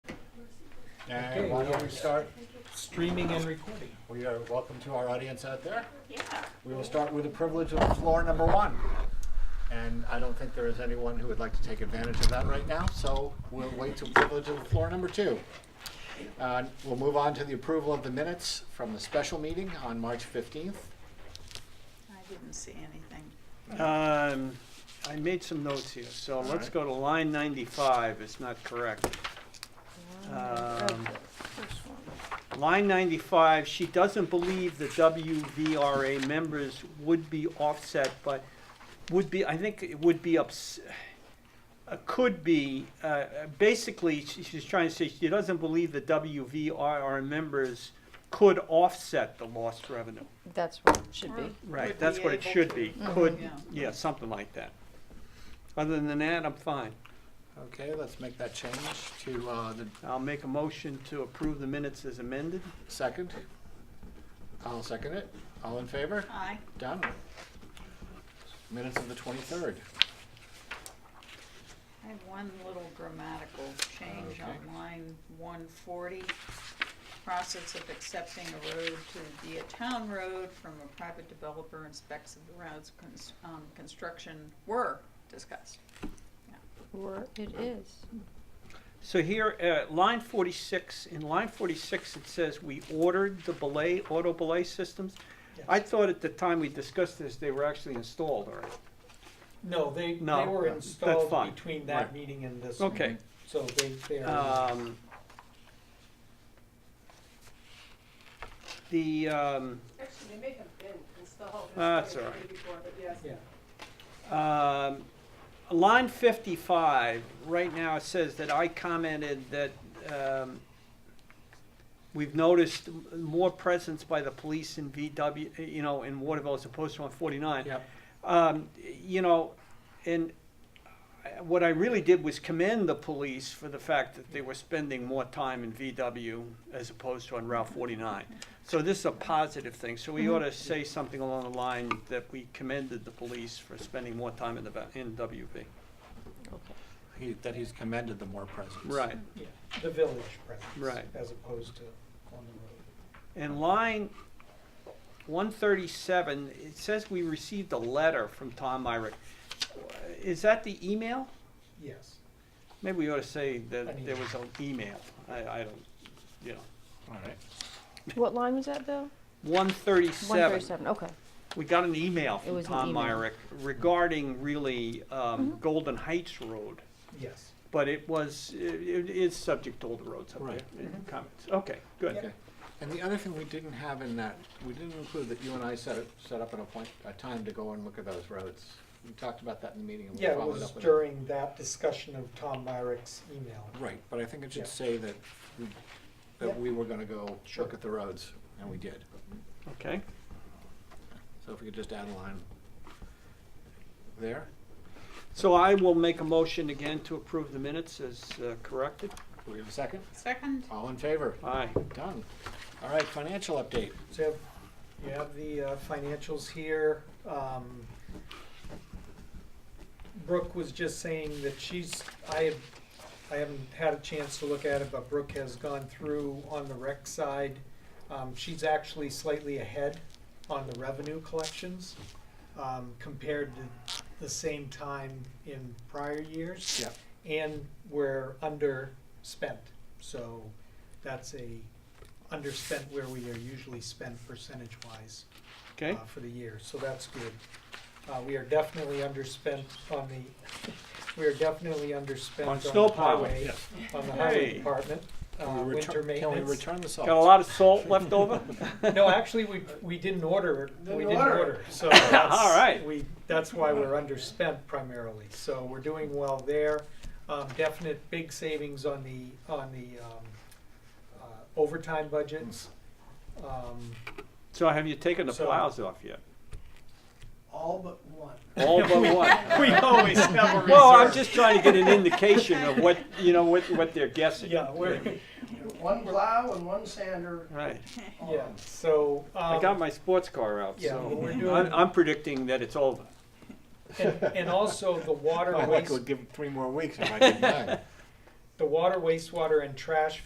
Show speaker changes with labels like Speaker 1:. Speaker 1: And
Speaker 2: Okay,
Speaker 1: why don't
Speaker 2: yeah.
Speaker 1: we start,
Speaker 2: Streaming and recording.
Speaker 1: we are welcome to our audience out there.
Speaker 3: Yeah.
Speaker 1: We will start with the privilege of floor number one. And I don't think there is anyone who would like to take advantage of that right now, so we'll wait till privilege of floor number two. Uh, We'll move on to the approval of the minutes from the special meeting on March 15th.
Speaker 3: I didn't see anything.
Speaker 4: Um, I made some notes here, so let's
Speaker 1: right.
Speaker 4: go to line ninety-five, it's not correct. Um,
Speaker 3: First one.
Speaker 4: Line ninety-five, she doesn't believe the WVRA members would be offset, but would be, I think it would be ups, uh, could be, uh, uh, basically, she- she's trying to say she doesn't believe the WVRA members could offset the lost revenue.
Speaker 5: That's what it should be.
Speaker 4: Right,
Speaker 3: Would
Speaker 4: that's
Speaker 3: be
Speaker 4: what it
Speaker 3: able
Speaker 4: should
Speaker 3: to.
Speaker 4: be,
Speaker 5: Mhm.
Speaker 4: could,
Speaker 3: Yeah.
Speaker 4: yeah, something like that. Other than that, I'm fine.
Speaker 1: Okay, let's make that change to uh, the
Speaker 4: I'll make a motion to approve the minutes as amended.
Speaker 1: second. I'll second it. All in favor?
Speaker 3: Aye.
Speaker 1: Done. Minutes of the 23rd.
Speaker 3: I have one little grammatical change
Speaker 1: Okay.
Speaker 3: on line one forty. Process of accepting a road to be a town road from a private developer and specs of the roads cons- um, construction were discussed.
Speaker 5: Or it is.
Speaker 4: So here, uh, line forty-six, in line forty-six, it says, "We ordered the belay, auto belay systems." I thought at the time we discussed this, they were actually installed already.
Speaker 2: No, they, they
Speaker 4: No,
Speaker 2: were
Speaker 4: that's
Speaker 2: installed
Speaker 4: fine.
Speaker 2: between
Speaker 1: Right.
Speaker 2: that meeting and this one.
Speaker 4: Okay,
Speaker 2: So they, they are,
Speaker 4: um. The, um,
Speaker 6: Actually, they may have been installed.
Speaker 4: Ah, That's all right.
Speaker 6: Before, but yes.
Speaker 2: yeah.
Speaker 4: Um, Line 55, right now it says that I commented that um, we've noticed m- more presence by the police in VW, uh, you know, in Waterville as opposed to on 49.
Speaker 2: Yep.
Speaker 4: Um, You know, and I- what I really did was commend the police for the fact that they were spending more time in VW as opposed to on Route 49. So this is a positive thing, so we ought to say something along the line that we commended the police for spending more time in the, va- in WV.
Speaker 5: Okay.
Speaker 1: He- That he's commended the more presence.
Speaker 4: Right,
Speaker 2: Yeah, the village presence.
Speaker 4: Right.
Speaker 2: As opposed to on the road.
Speaker 4: and line one thirty-seven, it says we received a letter from Tom Myrick. Is that the email?
Speaker 2: Yes.
Speaker 4: Maybe we ought to say
Speaker 2: An
Speaker 4: that there was an email, I, I don't, you know.
Speaker 1: All right.
Speaker 5: What line was that, Bill?
Speaker 4: One thirty-seven,
Speaker 5: 137, okay.
Speaker 4: we got an email
Speaker 5: It
Speaker 4: from
Speaker 5: was an
Speaker 4: Tom
Speaker 5: email. Mm-hmm.
Speaker 4: Myrick regarding really, um, Golden Heights Road.
Speaker 2: Yes.
Speaker 4: But it was, it is subject to all the roads up
Speaker 1: Right.
Speaker 4: there in comments. Okay, good.
Speaker 1: Okay. And the other thing we didn't have in that, we didn't include that you and I set, it- set up an appoint, a time to go and look at those roads. We talked about that in the meeting and we
Speaker 2: Yeah, it
Speaker 1: followed
Speaker 2: was
Speaker 1: up with it.
Speaker 2: during that discussion of Tom Myrick's email.
Speaker 1: Right, but I think it
Speaker 2: Yeah.
Speaker 1: should say that, we-
Speaker 2: Yep.
Speaker 1: that we were gonna go
Speaker 2: Sure.
Speaker 1: look at the roads, and we did.
Speaker 4: Okay.
Speaker 1: So if we could just add a line there,
Speaker 4: So I will make a motion again to approve the minutes as uh, corrected.
Speaker 1: we have a second?
Speaker 3: Second?
Speaker 1: All in favor?
Speaker 2: Uh.
Speaker 4: Aye.
Speaker 1: Done. All right, financial update.
Speaker 2: So you have, you have the uh, financials here. Um, Brooke was just saying that she's, I have, I haven't had a chance to look at it, but Brooke has gone through on the rec side. Um, she's actually slightly ahead on the revenue collections, um, compared to the same time in prior years
Speaker 1: Yep.
Speaker 2: and we're underspent. So that's a underspent where we are usually spent percentage-wise
Speaker 4: Okay,
Speaker 2: uh, for the year, so that's good. Uh, We are definitely underspent on the, we are definitely underspent
Speaker 4: On
Speaker 2: on the
Speaker 4: snow plowing,
Speaker 2: highway,
Speaker 1: yes.
Speaker 2: on the highway
Speaker 4: Hey.
Speaker 2: department, uh,
Speaker 1: Can we return-
Speaker 2: winter
Speaker 1: Can we
Speaker 2: maintenance.
Speaker 1: return the salt?
Speaker 4: got a lot of salt left over?
Speaker 2: No, actually, we, we didn't order, we
Speaker 6: Didn't
Speaker 2: didn't
Speaker 6: order.
Speaker 2: order, so that's.
Speaker 4: All right.
Speaker 2: We, that's why we're underspent primarily, so we're doing well there. Um, definite big savings on the, on the, um, uh, overtime budgets. Um,
Speaker 4: So have you taken the
Speaker 2: So-
Speaker 4: plows off yet?
Speaker 6: All but one.
Speaker 4: All but one?
Speaker 2: we always have a reserve.
Speaker 4: Well, I'm just trying to get an indication of what, you know, what, what they're guessing.
Speaker 2: Yeah, we're,
Speaker 6: One plow and one sander.
Speaker 4: Right.
Speaker 2: yeah, so, um.
Speaker 4: I got my sports car out,
Speaker 2: Yeah, well,
Speaker 4: so
Speaker 2: we're
Speaker 4: I'm,
Speaker 2: doing-
Speaker 4: I'm predicting that it's over.
Speaker 2: And, and also the water
Speaker 1: My luck
Speaker 2: waste,
Speaker 1: would give three more weeks if I did that.
Speaker 2: the water wastewater and trash